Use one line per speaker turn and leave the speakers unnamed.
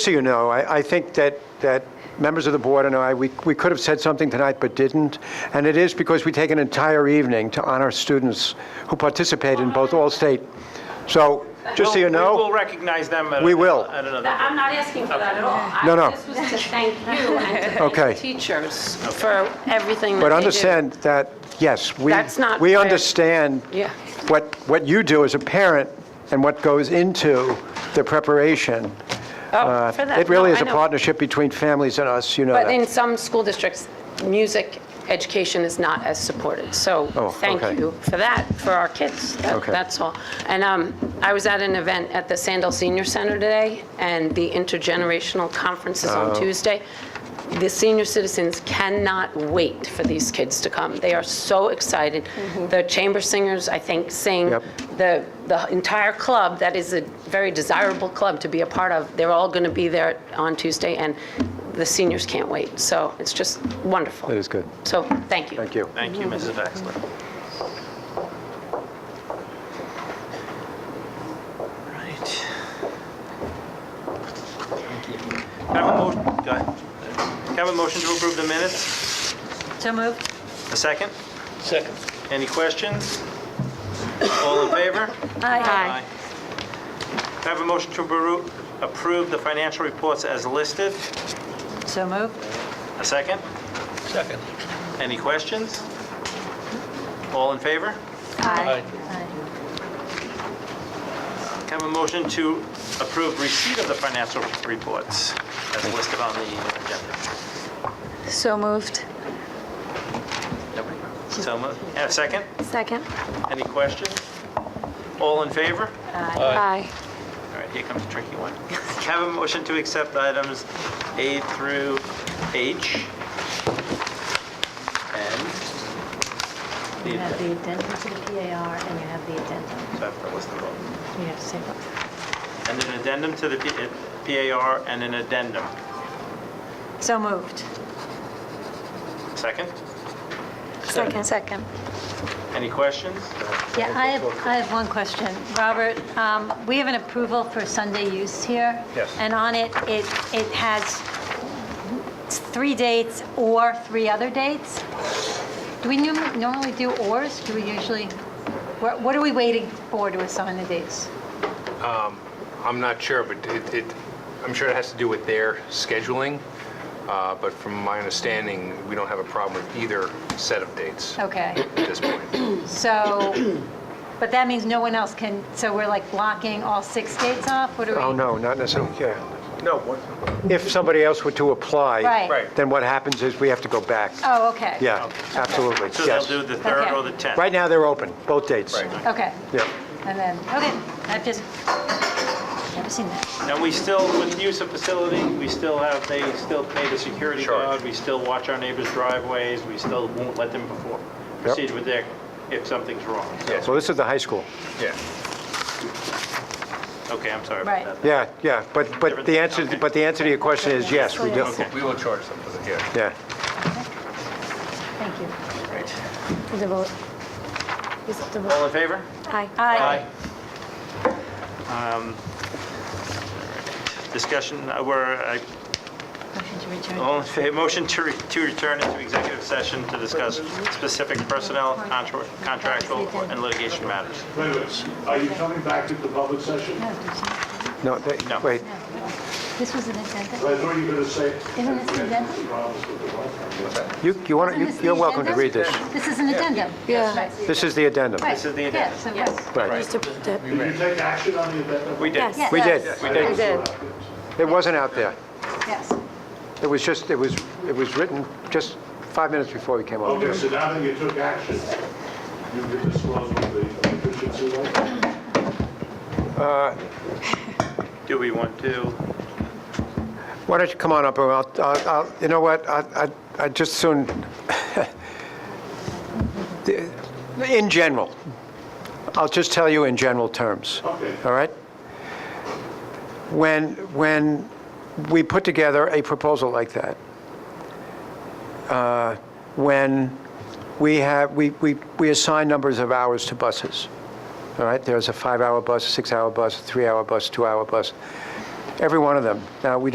So you know, I, I think that, that members of the board and I, we, we could have said something tonight but didn't. And it is because we take an entire evening to honor students who participate in both All-State. So, just so you
We'll- We will
know,
recognize them. at-
We will.
At another.
That- I'm not asking for that at all. I-
No, no.
This was to thank you and to thank
Okay.
the teachers for everything that
but
they did.
understand that, yes, we,
That's not
we
fair.
understand
Yeah.
what, what you do as a parent and what goes into the preparation. Uh,
Oh, for that.
It really
No,
is
I
a
know.
partnership between families and us, you know
But in
that.
some school districts, music education is not as supported. So
Oh,
thank
okay.
you for that, for our kids. That-
Okay.
That's all. And um, I was at an event at the Sandal Senior Center today, and the intergenerational conference is
Oh.
on Tuesday. The senior citizens cannot wait for these kids to come. They are so excited. The chamber singers, I think, sing.
Mm-hmm. Yep.
The the entire club, that is a very desirable club to be a part of, they're all going to be there on Tuesday, and the seniors can't wait. So it's just wonderful.
That is good.
So, thank you.
Thank you.
Thank you, Mrs. Baxter. Right. Thank you. Can I have a motion, go ahead. Can I have a motion to approve the minutes?
So moved.
A second? Second. Any questions? All in favor?
Aye.
Can I have a motion to approve- approve the financial reports as listed?
So moved.
A second?
Second.
Any questions? All in favor?
Aye.
Can I have a motion to approve receipt of the financial reports as listed on the agenda?
So moved.
So moved. And a second?
Second.
Any questions? All in favor?
Aye.
All right, here comes a tricky one. Can I have a motion to accept items A through H? And?
You have
the-
the addendum to the PAR and you have the addendum.
So I have to list them all.
You have to say what?
And an addendum to the P- PAR and an addendum.
So moved.
Second?
Second. Second.
Any questions?
Yeah, I have, I have one question. Robert, um, we have an approval for Sunday use here.
Yes.
And on it, it, it has three dates or three other dates. Do we nu- normally do ors? Do we usually, what what are we waiting for to assign the dates?
I'm not sure, but it, it, I'm sure it has to do with their scheduling, uh, but from my understanding, we don't have a problem with either set of dates at
Okay.
this point.
So, but that means no one else can, so we're like blocking all six dates off? What do we?
Oh, no, not necessarily, yeah. No. If somebody else were to apply.
Right. Right.
Then what happens is we have to go back.
Oh, okay.
Yeah, absolutely,
So they'll
yes.
do the 3rd or
Okay.
the 10th?
Right now, they're open, both dates.
Okay.
Yeah.
And then, okay, I've just, never seen that.
And we still, with use of facility, we still have, they still pay the security
Sure.
guard, we still watch our neighbors' driveways, we still won't let them before, proceed with their, if something's wrong.
Yes,
So this is the high school.
yeah.
Okay, I'm sorry about that.
Right.
Yeah, yeah, but, but the answer,
Okay.
but the answer to your question is yes, we do.
Okay.
We will charge them for the, yeah.
Yeah.
Thank you.
Right.
Is it vote? Is it the vote?
All in favor?
Aye.
Um, Discussion, uh, we're, uh,
Motion to return.
Oh.
all in favor, motion to, re- to return into executive session to discuss specific personnel, contra- contractual, and litigation matters.
Wait a minute. Are you coming back to the public session?
No, did
No, they-
you-
No.
wait,
This was an
I
addendum?
thought you were going to say.
Isn't this an addendum?
Problems with the Wi-Fi.
you, you want,
Isn't this the
you're welcome to
addendum?
read this.
This is an addendum? Yeah.
This is the addendum.
This is the addendum.
Yes, it was.
Right.
Did you take action on the addendum?
We did.
Yes.
We did.
Yes.
We did.
It wasn't out there.
Yes.
It was just, it was, it was written just five minutes before we came over.
Okay, so now that you took action, you can disclose what the efficiency was?
Do we want to?
Why don't you come on up, and I'll, I'll, I'll- you know what, I, I I just soon, in general, I'll just tell you in general terms.
Okay.
All right? When, when we put together a proposal like that, uh, when we have, we, we, we assign numbers of hours to buses, all right? There's a five-hour bus, a six-hour bus, a three-hour bus, two-hour bus, every one of them. Now, we